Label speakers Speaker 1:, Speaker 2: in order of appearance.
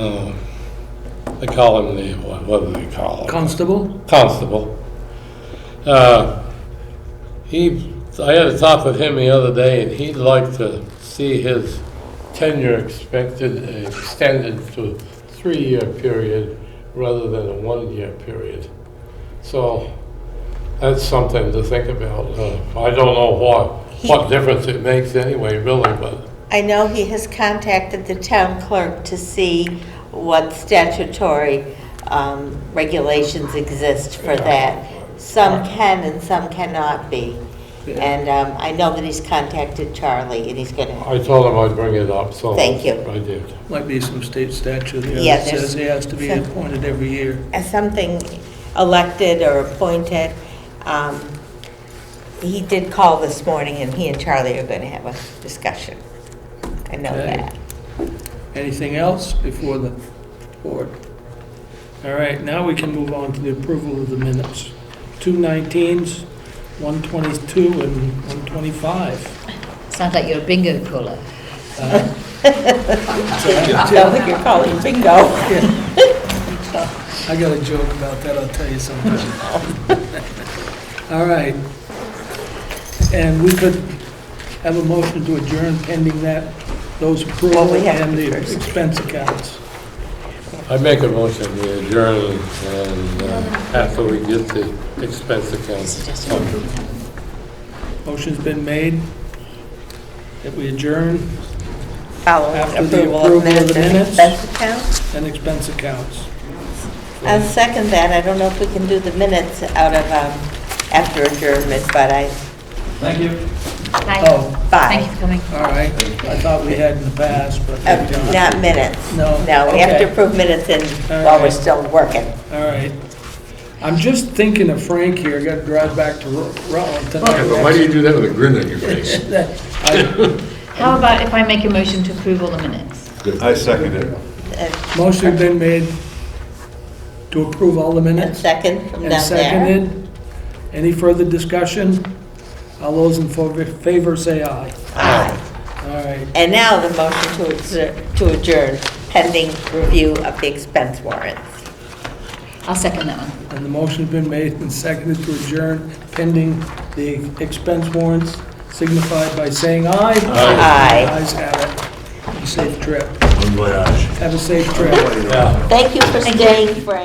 Speaker 1: uh, they call him the, what what do they call him?
Speaker 2: Constable?
Speaker 1: Constable. Uh, He, I had a talk with him the other day, and he'd like to see his tenure expected, uh, extended to a three-year period rather than a one-year period. So that's something to think about. Uh, I don't know what, what difference it makes anyway, really, but
Speaker 3: I know he has contacted the town clerk to see what statutory um, regulations exist for that. Some can and some cannot be. And um, I know that he's contacted Charlie and he's gonna,
Speaker 1: I told him I'd bring it up, so.
Speaker 3: Thank you.
Speaker 1: I did.
Speaker 2: Might be some state statute here
Speaker 3: Yeah,
Speaker 2: that
Speaker 3: there's-
Speaker 2: says he has to be
Speaker 3: some-
Speaker 2: appointed every year.
Speaker 3: as something elected or appointed. um, He did call this morning and he and Charlie are gonna have a discussion. I know
Speaker 2: Okay.
Speaker 3: that.
Speaker 2: Anything else before the board? All right, now we can move on to the approval of the minutes. Two 19s, 122, and 125.
Speaker 4: Sounds like you're a bingo caller.
Speaker 2: Uh,
Speaker 3: Sounds like you're calling bingo.
Speaker 2: I got a joke about that, I'll tell you sometime. All right. And we could have a motion to adjourn pending that, those approval
Speaker 3: Well, we have
Speaker 2: and
Speaker 3: to
Speaker 2: the
Speaker 3: first.
Speaker 2: expense accounts.
Speaker 1: I make a motion to adjourn and uh, after we get the expense accounts.
Speaker 2: Motion's been made that we adjourn
Speaker 3: following
Speaker 2: After the
Speaker 3: approval of
Speaker 2: approval of
Speaker 3: minutes
Speaker 2: the
Speaker 3: and
Speaker 2: minutes.
Speaker 3: expense accounts.
Speaker 2: and expense accounts.
Speaker 3: I'll second that. I don't know if we can do the minutes out of, um, after adjournment, but I,
Speaker 4: Hi.
Speaker 2: Oh,
Speaker 4: Thank you
Speaker 3: bye.
Speaker 4: for coming.
Speaker 2: all right. I thought we had in the past, but
Speaker 3: Uh,
Speaker 2: we don't.
Speaker 3: Not minutes.
Speaker 2: No,
Speaker 3: No, we have
Speaker 2: okay.
Speaker 3: to approve minutes in,
Speaker 2: All
Speaker 3: while we're
Speaker 2: right.
Speaker 3: still working.
Speaker 2: All right. I'm just thinking of Frank here, got to drive back to Ru- Rutland tonight.
Speaker 5: Yeah, but why do you do that with a grin on your face?
Speaker 2: I-
Speaker 4: How about if I make a motion to approve all the minutes?
Speaker 6: I second it.
Speaker 3: Uh,
Speaker 2: Motion been made to approve all the
Speaker 3: A
Speaker 2: minutes
Speaker 3: second from
Speaker 2: and
Speaker 3: down there.
Speaker 2: seconded. Any further discussion? All those in favor- favor say aye.
Speaker 3: Aye.
Speaker 2: All right.
Speaker 3: And now the motion to exer- to adjourn pending review of the expense warrants.
Speaker 4: I'll second that one.
Speaker 2: And the motion's been made and seconded to adjourn pending the expense warrants signified by saying aye.
Speaker 3: Aye. Aye.
Speaker 2: Ayes have it. Safe trip.
Speaker 6: Bon voyage.
Speaker 2: Have a safe trip.
Speaker 3: Thank you for staying, Frank.